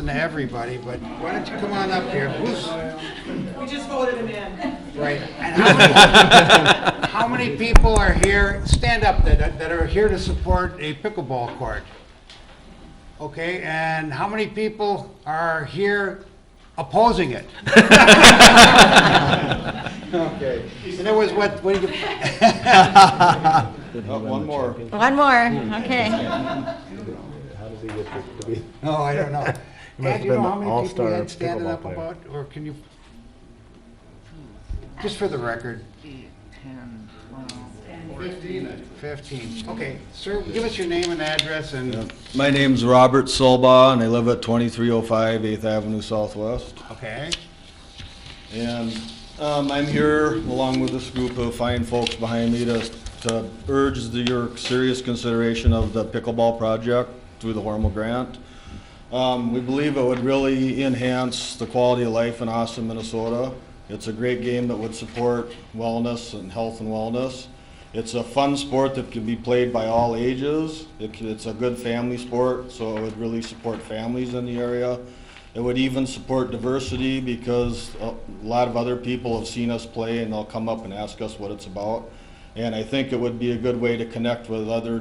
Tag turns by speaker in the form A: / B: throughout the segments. A: listen to everybody, but why don't you come on up here? Who's,
B: We just voted him in.
A: right, and how many- how many people are here, stand up, that, that are here to support a pickleball court? Okay, and how many people are here opposing it? Okay, and there was what, what do you?
C: Oh, One more.
D: One more,
E: Hmm.
D: okay.
C: How does he get to be?
A: No, I don't know.
C: He must
A: Ed,
C: have
A: do you know
C: been
A: how
C: an
A: many people you
C: all-star
A: had standing
C: pickleball
A: up
C: player.
A: about, or can you? Just for the record. Fifteen. Fifteen, okay. Sir, give us your name and address and,
F: My name's Robert Solba, and I live at 2305 8th Avenue Southwest.
A: okay,
F: And um, I'm here along with this group of fine folks behind me to to urge the- your serious consideration of the pickleball project through the Hormel Grant. Um, We believe it would really enhance the quality of life in Austin, Minnesota. It's a great game that would support wellness and health and wellness. It's a fun sport that can be played by all ages. It c- It's a good family sport, so it would really support families in the area. It would even support diversity because a lot of other people have seen us play and they'll come up and ask us what it's about. And I think it would be a good way to connect with other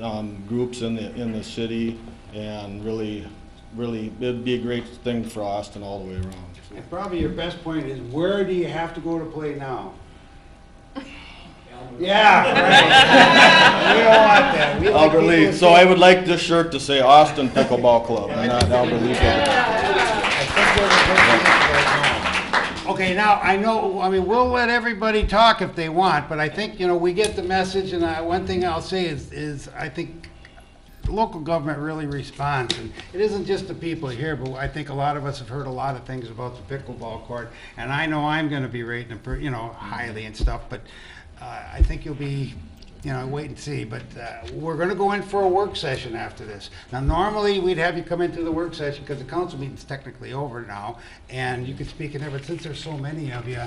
F: um, groups in the, in the city and really, really, it'd be a great thing for Austin all the way around.
A: and probably your best point is where do you have to go to play now? Yeah, right. We don't want that. We like
F: Albert Lee,
A: people
F: so I would like this shirt to say Austin Pickleball Club and not Albert Lee Pickleball.
A: Okay, now, I know, I mean, we'll let everybody talk if they want, but I think, you know, we get the message, and I, one thing I'll say is, is I think local government really responds, and it isn't just the people here, but I think a lot of us have heard a lot of things about the pickleball court, and I know I'm gonna be rating it, per- you know, highly and stuff, but, uh, I think you'll be, you know, wait and see, but, uh, we're gonna go in for a work session after this. Now, normally, we'd have you come into the work session, because the council meeting's technically over now, and you could speak in there, but since there's so many of you,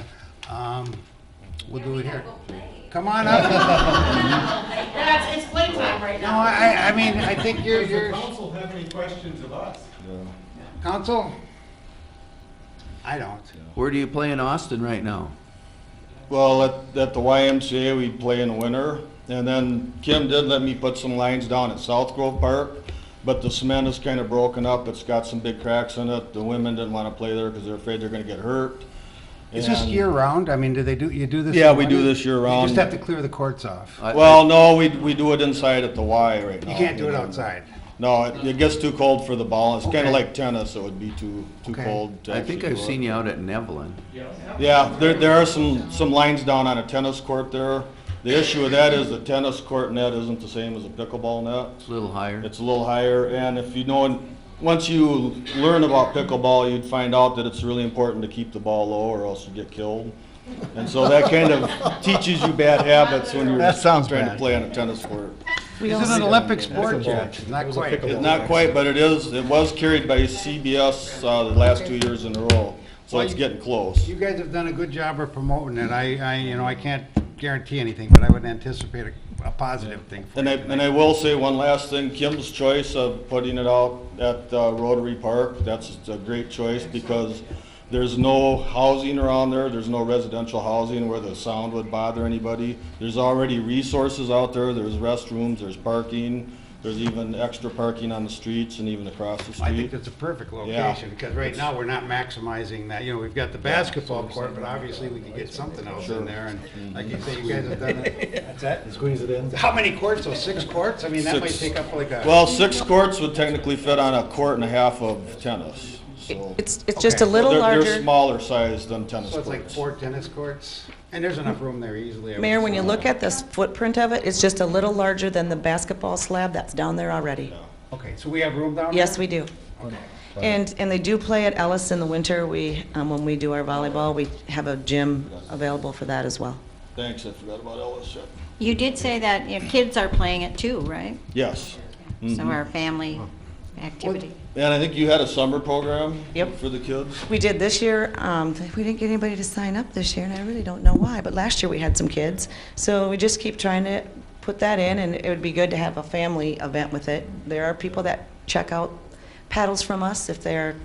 A: um, we'll do it here. Come on up,
B: That's, it's playtime right
A: no,
B: now.
A: I, I mean, I think you're,
E: Does the
A: you're.
E: council have any questions of us?
A: Council? I don't.
G: Where do you play in Austin right now?
F: Well, at, at the YMCA, we play in the winter, and then Kim did let me put some lines down at South Grove Park, but the cement is kind of broken up, it's got some big cracks in it, the women didn't want to play there because they're afraid they're gonna get hurt.
A: Is this
F: And-
A: year round? I mean, do they do, you do this?
F: Yeah,
A: in
F: we do
A: winter?
F: this year
A: You just
F: round.
A: have to clear the courts off.
G: I-
F: Well, no, we, we do it inside at the Y right now.
A: You can't do it outside.
F: No, it, it gets too cold for the ball, it's kind
A: Okay.
F: of like tennis, it would be too, too
A: Okay.
F: cold to
G: I think
F: actually
G: I've
F: do it.
G: seen you out at Nevelin.
F: Yeah, there, there are some, some lines down on a tennis court there. The issue with that is the tennis court net isn't the same as a pickleball net.
G: It's a little higher.
F: It's a little higher, and if you know, once you learn about pickleball, you'd find out that it's really important to keep the ball low or else you get killed. And so that kind of teaches you bad habits when you're
C: That sounds
F: trying to
C: bad.
F: play on a tennis court.
A: Is it an Olympic sport
C: Pickleball.
A: yet? Not
C: It was a
A: quite.
C: pickleball.
F: It's not quite, but it is, it was carried by CBS, uh, the last two years in a row, so it's getting close.
A: You guys have done a good job of promoting it. I, I, you know, I can't guarantee anything, but I would anticipate a, a positive thing for
F: And I,
A: you.
F: and I will say one last thing, Kim's choice of putting it out at uh, Rotary Park, that's a great choice because there's no housing around there, there's no residential housing where the sound would bother anybody. There's already resources out there, there's restrooms, there's parking, there's even extra parking on the streets and even across the
A: I think
F: street.
A: that's a perfect
F: Yeah.
A: location, because right now, we're not maximizing that. You know, we've got the basketball court, but obviously, we could get something else in there, and like you say, you guys have done it.
C: That's it. Squeeze it in.
A: How many courts? Oh, six courts? I mean, that might
F: Six.
A: take up like a.
F: Well, six courts would technically fit on a court and a half of tennis, so.
D: It's, it's just a
A: Okay.
D: little
F: They're- They're
D: larger.
F: smaller sized than tennis
A: So it's
F: courts.
A: like four tennis courts, and there's enough room there easily. I would
D: Mayor, when you
A: assume.
D: look at this footprint of it, it's just a little larger than the basketball slab that's down there already.
A: Okay, so we have room down there?
D: Yes, we do. And, and they do play at Ellis in the winter. We, um, when we do our volleyball, we have a gym available for that as well.
F: Thanks, I forgot about Ellis.
H: You did say that your kids are playing it too, right?
F: Yes.
H: So our family activity.
F: And I think you had a summer program?
D: Yep.
F: For the kids?
D: We did this year, um, we didn't get anybody to sign up this year, and I really don't know why, but last year we had some kids. So we just keep trying to put that in, and it would be good to have a family event with it. There are people that check out paddles from us if they're